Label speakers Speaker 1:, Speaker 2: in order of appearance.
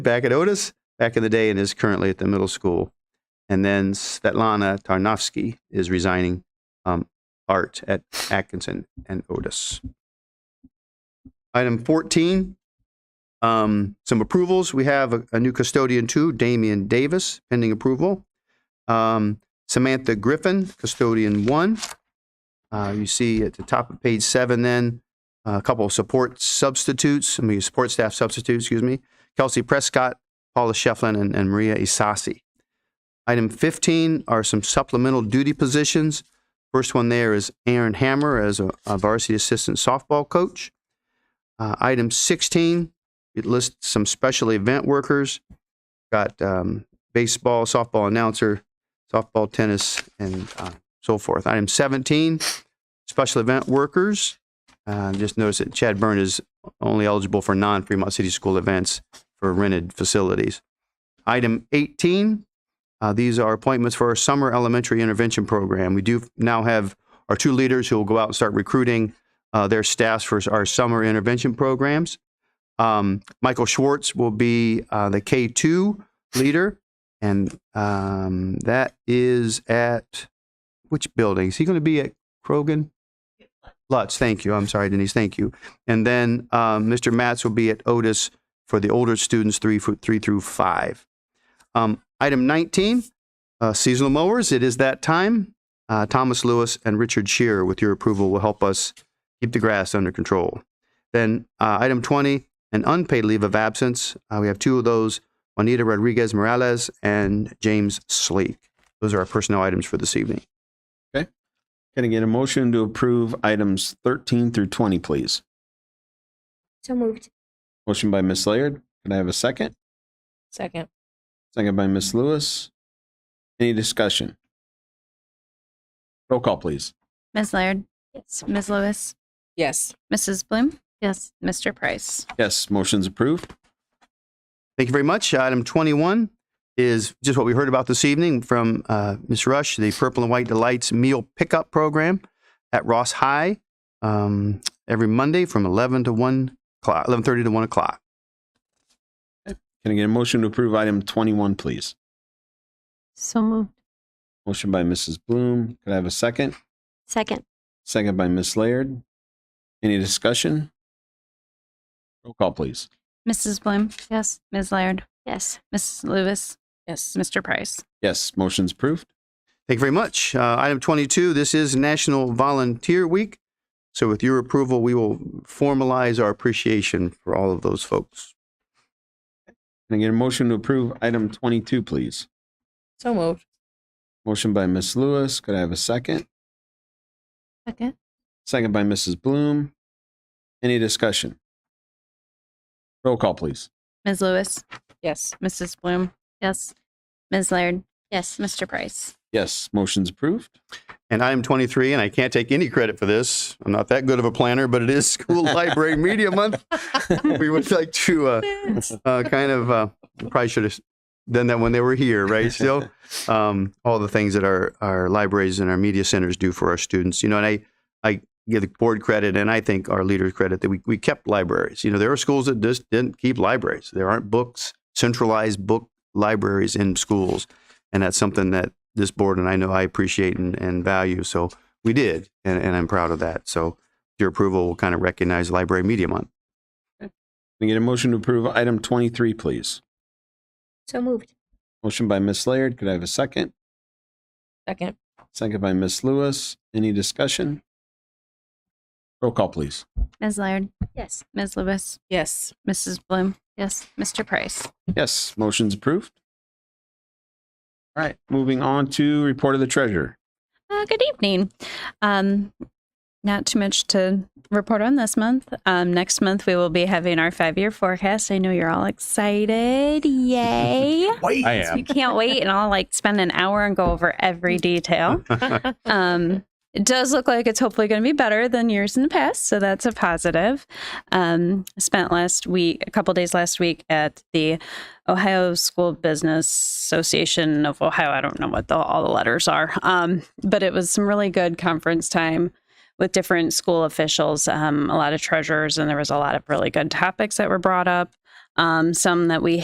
Speaker 1: back at Otis back in the day and is currently at the middle school. And then Svetlana Tarnovsky is resigning um, art at Atkinson and Otis. Item 14, um, some approvals. We have a, a new custodian too, Damian Davis, pending approval. Um, Samantha Griffin, custodian one. Uh, you see at the top of page seven then, a couple of support substitutes, I mean, support staff substitutes, excuse me. Kelsey Prescott, Paula Shefflin, and, and Maria Isasi. Item 15 are some supplemental duty positions. First one there is Aaron Hammer as a, a varsity assistant softball coach. Uh, item 16, it lists some special event workers. Got um, baseball, softball announcer, softball, tennis, and uh, so forth. Item 17, special event workers. Uh, just notice that Chad Byrne is only eligible for non Fremont City School events for rented facilities. Item 18, uh, these are appointments for our summer elementary intervention program. We do now have our two leaders who will go out and start recruiting uh, their staffs for our summer intervention programs. Um, Michael Schwartz will be uh, the K2 leader, and um, that is at which building? Is he going to be at Krogan? Lutz, thank you. I'm sorry, Denise, thank you. And then um, Mr. Matz will be at Otis for the older students, three, fo- three through five. Um, item 19, uh, seasonal mowers. It is that time. Uh, Thomas Lewis and Richard Shear, with your approval, will help us keep the grass under control. Then uh, item 20, an unpaid leave of absence. Uh, we have two of those Juanita Rodriguez Morales and James Sleek. Those are our personnel items for this evening.
Speaker 2: Can I get a motion to approve items 13 through 20, please?
Speaker 3: So moved.
Speaker 2: Motion by Ms. Laird. Can I have a second?
Speaker 4: Second.
Speaker 2: Second by Ms. Lewis. Any discussion? Roll call, please.
Speaker 5: Ms. Laird?
Speaker 3: Yes.
Speaker 5: Ms. Lewis?
Speaker 4: Yes.
Speaker 5: Mrs. Bloom?
Speaker 4: Yes.
Speaker 5: Mr. Price?
Speaker 2: Yes, motion's approved.
Speaker 1: Thank you very much. Item 21 is just what we heard about this evening from uh, Ms. Rush, the Purple and White Delights Meal Pickup Program at Ross High um, every Monday from 11 to 1 o'clock, 11.30 to 1 o'clock.
Speaker 2: Can I get a motion to approve item 21, please?
Speaker 4: So moved.
Speaker 2: Motion by Mrs. Bloom. Could I have a second?
Speaker 3: Second.
Speaker 2: Second by Ms. Laird. Any discussion? Roll call, please.
Speaker 5: Mrs. Bloom? Yes. Ms. Laird?
Speaker 3: Yes.
Speaker 5: Mrs. Lewis?
Speaker 4: Yes.
Speaker 5: Mr. Price?
Speaker 2: Yes, motion's approved.
Speaker 1: Thank you very much. Uh, item 22, this is National Volunteer Week. So with your approval, we will formalize our appreciation for all of those folks.
Speaker 2: Can I get a motion to approve item 22, please?
Speaker 4: So moved.
Speaker 2: Motion by Ms. Lewis. Could I have a second?
Speaker 4: Second.
Speaker 2: Second by Mrs. Bloom. Any discussion? Roll call, please.
Speaker 5: Ms. Lewis?
Speaker 4: Yes.
Speaker 5: Mrs. Bloom? Yes. Ms. Laird?
Speaker 3: Yes.
Speaker 5: Mr. Price?
Speaker 2: Yes, motion's approved.
Speaker 1: And item 23, and I can't take any credit for this. I'm not that good of a planner, but it is School Library Media Month. We would like to uh, uh, kind of uh, probably should have done that when they were here, right? Still, um, all the things that our our libraries and our media centers do for our students, you know. And I I give the board credit, and I think our leaders credit that we we kept libraries. You know, there are schools that just didn't keep libraries. There aren't books centralized book libraries in schools, and that's something that this board and I know I appreciate and, and value. So we did, and, and I'm proud of that. So your approval will kind of recognize Library Media Month.
Speaker 2: Can I get a motion to approve item 23, please?
Speaker 3: So moved.
Speaker 2: Motion by Ms. Laird. Could I have a second?
Speaker 4: Second.
Speaker 2: Second by Ms. Lewis. Any discussion? Roll call, please.
Speaker 5: Ms. Laird?
Speaker 3: Yes.
Speaker 5: Ms. Lewis?
Speaker 4: Yes.
Speaker 5: Mrs. Bloom? Yes. Mr. Price?
Speaker 2: Yes, motion's approved. All right, moving on to report of the treasurer.
Speaker 5: Uh, good evening. Um, not too much to report on this month. Um, next month, we will be having our five year forecast. I know you're all excited. Yay.
Speaker 6: I
Speaker 5: You
Speaker 6: am.
Speaker 5: can't wait, and I'll like spend an hour and go over every detail. Um, it does look like it's hopefully going to be better than years in the past, so that's a positive. Um, spent last week, a couple days last week, at the Ohio School Business Association of Ohio. I don't know what the, all the letters are, um, but it was some really good conference time with different school officials, um, a lot of treasurers, and there was a lot of really good topics that were brought up. Um, some that we